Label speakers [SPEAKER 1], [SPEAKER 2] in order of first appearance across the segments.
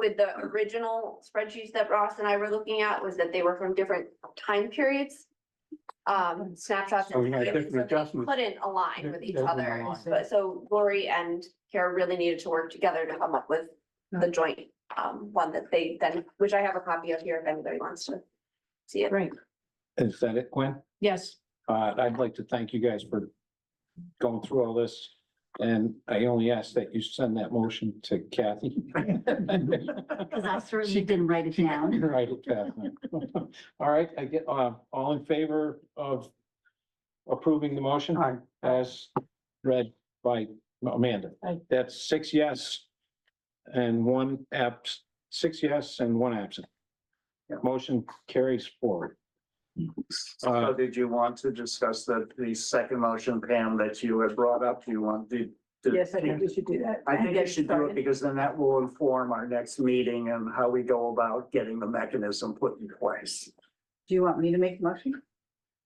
[SPEAKER 1] with the original spreadsheets that Ross and I were looking at was that they were from different time periods. Um, snapshots.
[SPEAKER 2] So we had
[SPEAKER 1] and
[SPEAKER 2] different adjustments.
[SPEAKER 1] Couldn't align with each
[SPEAKER 2] Doesn't
[SPEAKER 1] other,
[SPEAKER 2] align.
[SPEAKER 1] but so Lori and Kara really needed to work together to come up with the joint um one that they then, which I have a copy of here if anybody wants to see it.
[SPEAKER 3] Right,
[SPEAKER 2] Is that it, Gwen?
[SPEAKER 3] yes,
[SPEAKER 2] Uh, I'd like to thank you guys for going through all this. And I only ask that you send that motion to Kathy.
[SPEAKER 3] because I certainly didn't write it down.
[SPEAKER 2] Right, Kathy. All right, I get, uh, all in favor of approving the motion?
[SPEAKER 4] Aye.
[SPEAKER 2] As read by Amanda.
[SPEAKER 4] Aye.
[SPEAKER 2] That's six yes and one abs, six yes and one absent.
[SPEAKER 4] Yeah.
[SPEAKER 2] Motion carries forward. Uh,
[SPEAKER 4] So did you want to discuss the, the second motion, Pam, that you had brought up? Do you want the? the-
[SPEAKER 5] Yes, I think we should do that.
[SPEAKER 4] I think
[SPEAKER 5] And
[SPEAKER 4] you
[SPEAKER 5] get
[SPEAKER 4] should do it
[SPEAKER 5] started.
[SPEAKER 4] because then that will inform our next meeting and how we go about getting the mechanism put in place.
[SPEAKER 5] Do you want me to make a motion?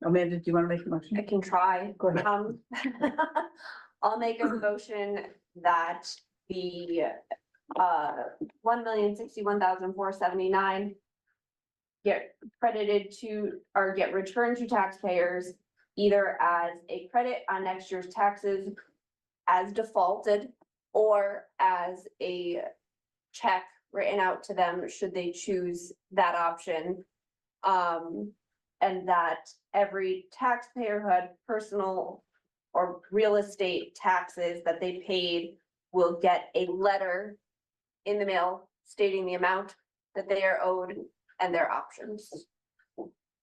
[SPEAKER 5] Amanda, do you want to make
[SPEAKER 1] I
[SPEAKER 5] a motion?
[SPEAKER 1] can try.
[SPEAKER 5] Go ahead.
[SPEAKER 1] Um, I'll make a motion that the uh one million sixty-one thousand four seventy-nine get credited to, or get returned to taxpayers either as a credit on next year's taxes as defaulted or as a check written out to them should they choose that option. Um, and that every taxpayer who had personal or real estate taxes that they paid will get a letter in the mail stating the amount that they are owed and their options,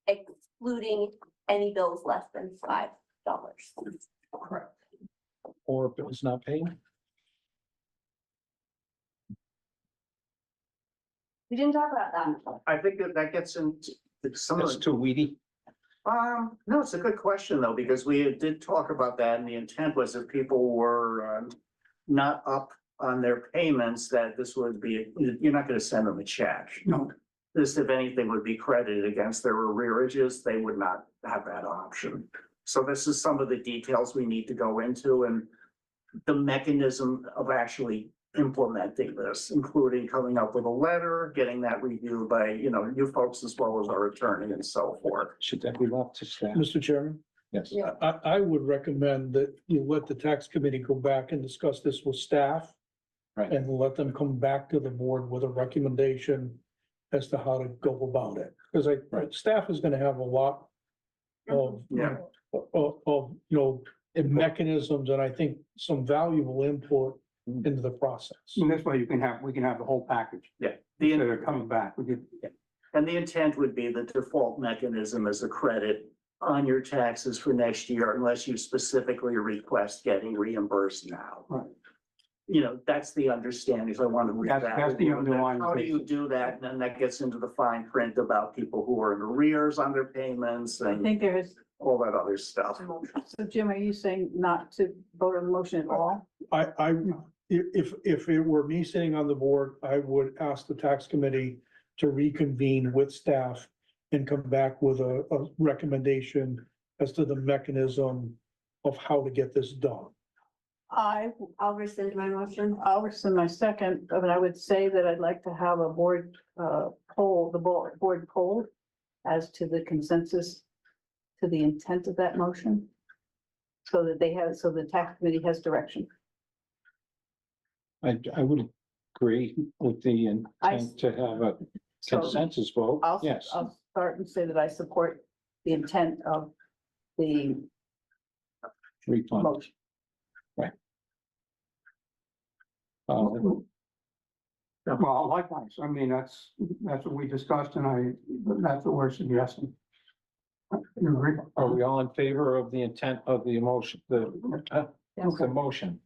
[SPEAKER 1] excluding any bills less than five dollars.
[SPEAKER 2] or if it was not paid?
[SPEAKER 1] We didn't talk about that.
[SPEAKER 4] I think that that gets into some of
[SPEAKER 2] That's
[SPEAKER 4] the
[SPEAKER 2] too weedy.
[SPEAKER 4] Um, no, it's a good question though, because we did talk about that and the intent was if people were um. Not up on their payments, that this would be, you're not gonna send them a check. No. This, if anything, would be credited against their arrearages. They would not have that option. So this is some of the details we need to go into and. The mechanism of actually implementing this, including coming up with a letter, getting that reviewed by, you know, you folks as well as our attorney and so forth.
[SPEAKER 2] Should that be left to staff?
[SPEAKER 6] Mr. Chairman,
[SPEAKER 2] Yes.
[SPEAKER 1] Yeah.
[SPEAKER 6] I, I would recommend that you let the tax committee go back and discuss this with staff.
[SPEAKER 2] Right.
[SPEAKER 6] And let them come back to the board with a recommendation as to how to go about it. Because I,
[SPEAKER 2] Right.
[SPEAKER 6] staff is gonna have a lot of,
[SPEAKER 4] Yeah.
[SPEAKER 6] of, of, you know, mechanisms and I think some valuable input
[SPEAKER 2] Mm.
[SPEAKER 6] into the process.
[SPEAKER 7] And this way you can have, we can have the whole package
[SPEAKER 4] The,
[SPEAKER 7] instead
[SPEAKER 4] in-
[SPEAKER 7] of coming back. We could,
[SPEAKER 4] and the intent would be the default mechanism is a credit on your taxes for next year unless you specifically request getting reimbursed now.
[SPEAKER 7] Right.
[SPEAKER 4] You know, that's the understanding, so I want to. read
[SPEAKER 7] That's-
[SPEAKER 4] that.
[SPEAKER 7] that's the underlying
[SPEAKER 4] How do you
[SPEAKER 7] basis.
[SPEAKER 4] do that? And then that gets into the fine print about people who are in arrears on their payments
[SPEAKER 5] I
[SPEAKER 4] and
[SPEAKER 5] think there is,
[SPEAKER 4] all that other stuff.
[SPEAKER 5] so Jim, are you saying not to vote on the motion at all?
[SPEAKER 6] I, I, if, if, if it were me sitting on the board, I would ask the tax committee to reconvene with staff and come back with a, a recommendation as to the mechanism of how to get this done.
[SPEAKER 5] I,
[SPEAKER 1] I'll rescind my motion.
[SPEAKER 5] I'll rescind my second, but I would say that I'd like to have a board, uh, poll, the board, board poll as to the consensus, to the intent of that motion. So that they have, so the tax committee has direction.
[SPEAKER 2] I, I would agree with the
[SPEAKER 5] I-
[SPEAKER 2] intent to have a
[SPEAKER 5] So-
[SPEAKER 2] consensus vote,
[SPEAKER 5] I'll,
[SPEAKER 2] yes.
[SPEAKER 5] I'll start and say that I support the intent of the
[SPEAKER 2] Refund.
[SPEAKER 5] motion.
[SPEAKER 2] Uh,
[SPEAKER 7] well, likewise, I mean, that's, that's what we discussed and I, that's what we're suggesting. You agree?
[SPEAKER 2] Are we all in favor of the intent of the emotion, the, uh, the motion?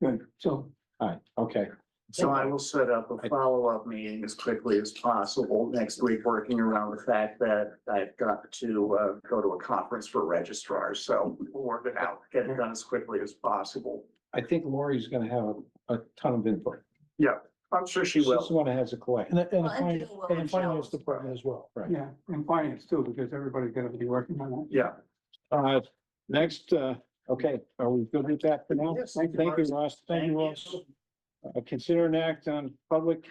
[SPEAKER 7] Good, so
[SPEAKER 2] All right, okay.
[SPEAKER 4] So I will set up a
[SPEAKER 2] I-
[SPEAKER 4] follow-up meeting as quickly as possible next week, working around the fact that I've got to uh, go to a conference for registrars, so we'll work it out, get it done as quickly as possible.
[SPEAKER 2] I think Lori's gonna have a, a ton of input.
[SPEAKER 4] I'm sure she
[SPEAKER 2] She's the
[SPEAKER 4] will.
[SPEAKER 2] one that has a collection.
[SPEAKER 6] And the, and the
[SPEAKER 1] Well, and
[SPEAKER 6] finance,
[SPEAKER 1] you will,
[SPEAKER 6] and the finance
[SPEAKER 1] Michelle.
[SPEAKER 6] department as well.
[SPEAKER 7] Yeah, and finance too, because everybody's gonna be working on that.
[SPEAKER 4] Yeah.
[SPEAKER 2] Uh, next, uh, okay, are we good with that for now?
[SPEAKER 4] Yes,
[SPEAKER 2] Thank you, Ross. Thank you,
[SPEAKER 4] Thank
[SPEAKER 2] Ross.
[SPEAKER 4] you.
[SPEAKER 2] Uh, consider an act on public